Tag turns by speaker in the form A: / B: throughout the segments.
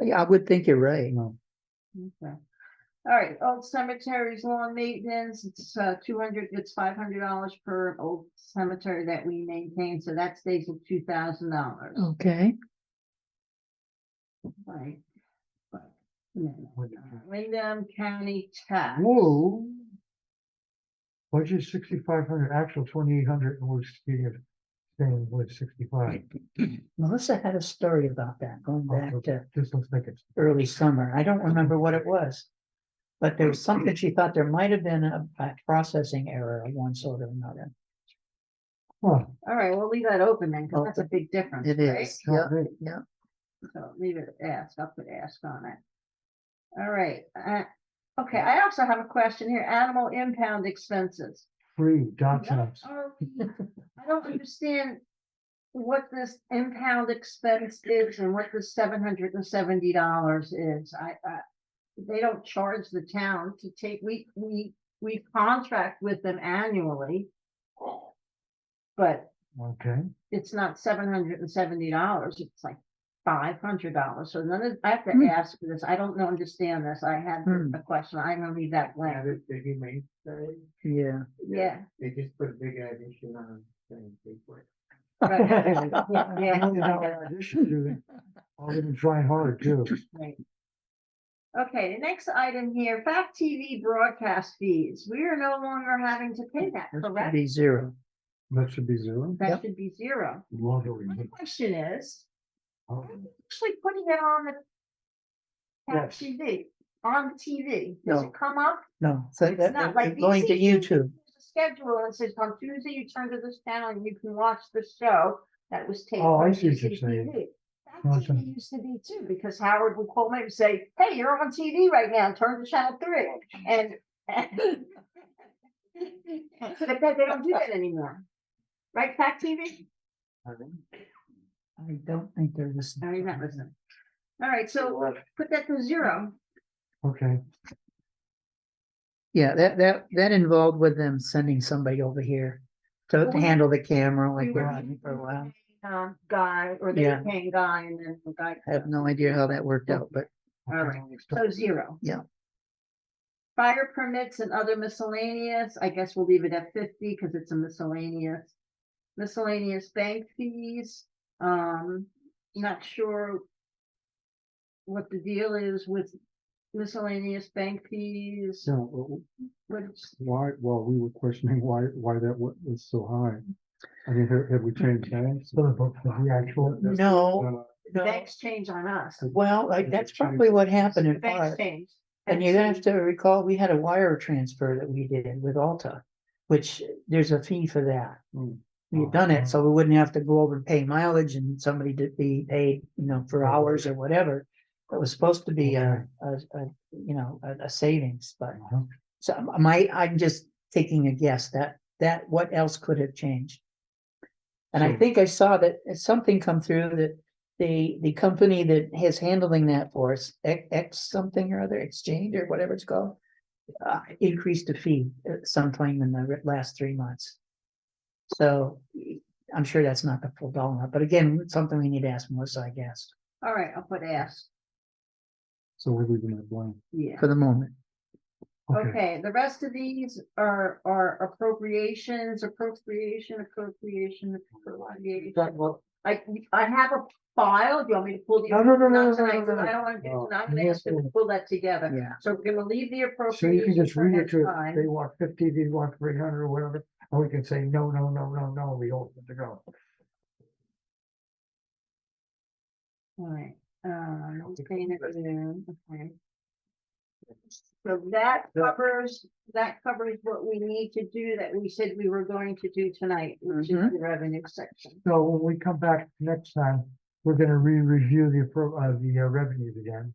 A: Yeah, I would think you're right.
B: Okay. All right, old cemeteries, lawn maintenance, it's uh two hundred, it's five hundred dollars per old cemetery that we maintain, so that stays at two thousand dollars.
A: Okay,
B: Right. But, no, no,
C: Uh,
B: no. Wyndham County tax.
C: Whoa. Budget sixty-five hundred, actual twenty-eight hundred, and we're staying, staying with sixty-five.
A: Melissa had a story about that going back to
C: This looks like it's,
A: early summer. I don't remember what it was. But there was something she thought there might have been a, a processing error of one sort or another.
C: huh,
B: All right, we'll leave that open then, because that's a big difference. right?
A: yeah.
C: great.
B: So leave it at ask, I'll put ask on it. All right, uh, okay, I also have a question here, animal impound expenses.
C: free dot
B: What
C: jobs.
B: are we- I don't understand what this impound expense is and what the seven hundred and seventy dollars is. I, I. They don't charge the town to take, we, we, we contract with them annually. But
C: Okay,
B: it's not seven hundred and seventy dollars, it's like five hundred dollars. So none of, I have
A: Hmm.
B: to ask for this. I don't know, understand this. I had
A: Hmm.
B: a question. I'm gonna leave that blank.
D: Added the humane side,
A: Yeah.
B: Yeah.
D: they just put a big addition on, saying big word.
B: right. Yeah, yeah,
C: Million
B: I
C: dollar addition to it. All of them trying hard too.
B: Right. Okay, the next item here, fact TV broadcast fees. We are no longer having to pay that,
A: That should
B: correct?
A: Be zero.
C: That should be zero.
B: That
A: yep. Mm-hmm.
B: should be zero.
C: Lottery.
B: My question is,
C: Oh,
B: actually putting it on the fact
C: Yes.
B: TV, on TV, does
A: No.
B: it come up?
A: No, so
B: It's
A: that,
B: not
A: that-
B: like
A: it's going to
B: VCU.
A: YouTube.
B: There's a Schedule and it says on Tuesday, you turn to this channel and you can watch the show that was taped.
C: Oh, I
B: on
C: see what you're saying.
B: CCTV. Fact
C: Gotcha.
B: TV used to be too, because Howard would call me and say, hey, you're on TV right now, turn to channel three. And But they, they don't do that anymore. Right, Fact TV?
A: I don't think they're listening.
B: No, you're not listening. All right, so put that to zero.
C: Okay,
A: Yeah, that, that, that involved with them sending somebody over here to
B: Well, we-
A: handle the camera
B: we
A: like
B: were-
A: we're on for a while.
B: Uh, Guy, or they
A: Yeah.
B: were paying Guy and then the guy.
A: I have no idea how that worked out, but
B: All right, so zero.
A: Yeah.
B: Fire permits and other miscellaneous, I guess we'll leave it at fifty because it's a miscellaneous. Miscellaneous bank fees, um, not sure. What the deal is with miscellaneous bank fees,
C: so
B: what it's-
C: why, well, we were questioning why, why that wa- was so high. I mean, have, have we changed hands? The actual.
A: no. no.
B: banks change on us.
A: Well, like,
C: Is it
A: that's
C: changed?
A: probably what happened in
B: Banks
A: part.
B: change.
A: And you're gonna have to recall, we had a wire transfer that we did with Alta, which there's a fee for that.
C: Mm.
A: We had done it, so we wouldn't have to go over and pay mileage and somebody did be paid, you know, for
C: Right.
A: hours or whatever. It was supposed to be a, a, a, you know, a, a savings, but
C: Uh-huh.
A: so am- am I, I'm just taking a guess that, that, what else could have changed? And I
C: So-
A: think I saw that uh, something come through that the, the company that is handling that for us, X, X something or other, exchange or whatever it's called. Uh, increased the fee uh, sometime in the re- last three months. So y- I'm sure that's not the full dollar, but again, it's something we need to ask Melissa, I guess,
B: All right, I'll put ask,
C: So we're leaving it blank.
B: yeah.
A: for the moment.
B: Okay, the rest of these are, are appropriations, appropriation, appropriation, appropriation.
C: That- well,
B: I, I have a file, do you want me to pull the?
C: No, no, no, no,
B: not
C: no, no,
B: tonight, 'cause
C: no, no.
B: I don't wanna, do-
C: No,
B: I'm
C: you
B: gonna ask
C: have
B: them to
C: to-
B: pull that together,
A: Yeah.
B: so we're gonna leave the
C: So you
B: appropriation.
C: can just read it to, us.
B: time.
C: they want fifty, they want three hundred or whatever, and we can say, no, no, no, no, no, we don't want to go.
B: Alright, um, I'm paying it in, okay. So that covers, that covers what we need to do that we said we were going to do tonight, which is
A: Mhm.
C: Mm-hmm.
B: the revenue section.
C: So when we come back next time, we're gonna re-review the appro, uh, the uh, revenues again.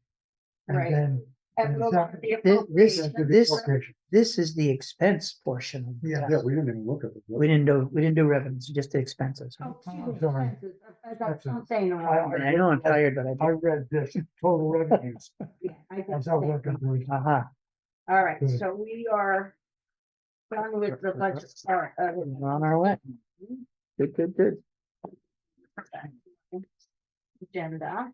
B: Right.
C: And then.
B: And
C: And
B: we'll do
C: that-
B: the
A: This- this-
B: appropriation.
C: then do the
A: This-
C: appropriation.
A: This is the expense portion. of the tax.
D: we didn't even look at it.
A: We didn't do, we didn't do revenues, just the expenses.
B: Oh,
C: Oh,
B: two
C: sorry.
B: expenses. I- I-
C: That's
B: that's
C: a-
B: what I'm saying the wrong
C: I- I-
B: word.
A: I know I'm tired, but I.
C: I read this, total revenues,
B: Yeah, I did
C: as I
B: say-
C: worked on doing.
A: Uh-huh.
B: All right,
C: Good.
B: so we are done with the budget. All right, uh, with-
A: We're on our way. Good, good, good.
B: agenda.